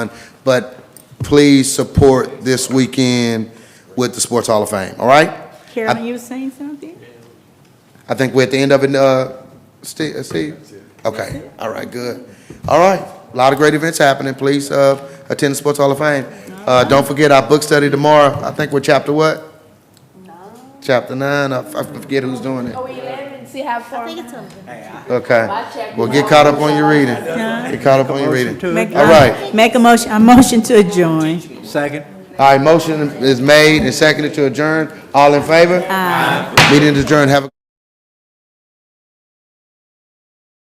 But please support this weekend with the Sports Hall of Fame, all right? Carolyn, you were saying something? I think we're at the end of it, uh, Steve, uh, Steve? Okay, all right, good. All right, a lot of great events happening, please, uh, attend the Sports Hall of Fame. Uh, don't forget our book study tomorrow, I think we're chapter what? Chapter nine, I I forget who's doing it, Oh, eleven, see how far. okay. Well, get caught up on your reading, get caught up on your reading. Make a- All right. Make a motion, a motion to adjourn. Second. All right, motion is made and seconded to adjourn, all in favor? Aye. Meeting is adjourned, have a.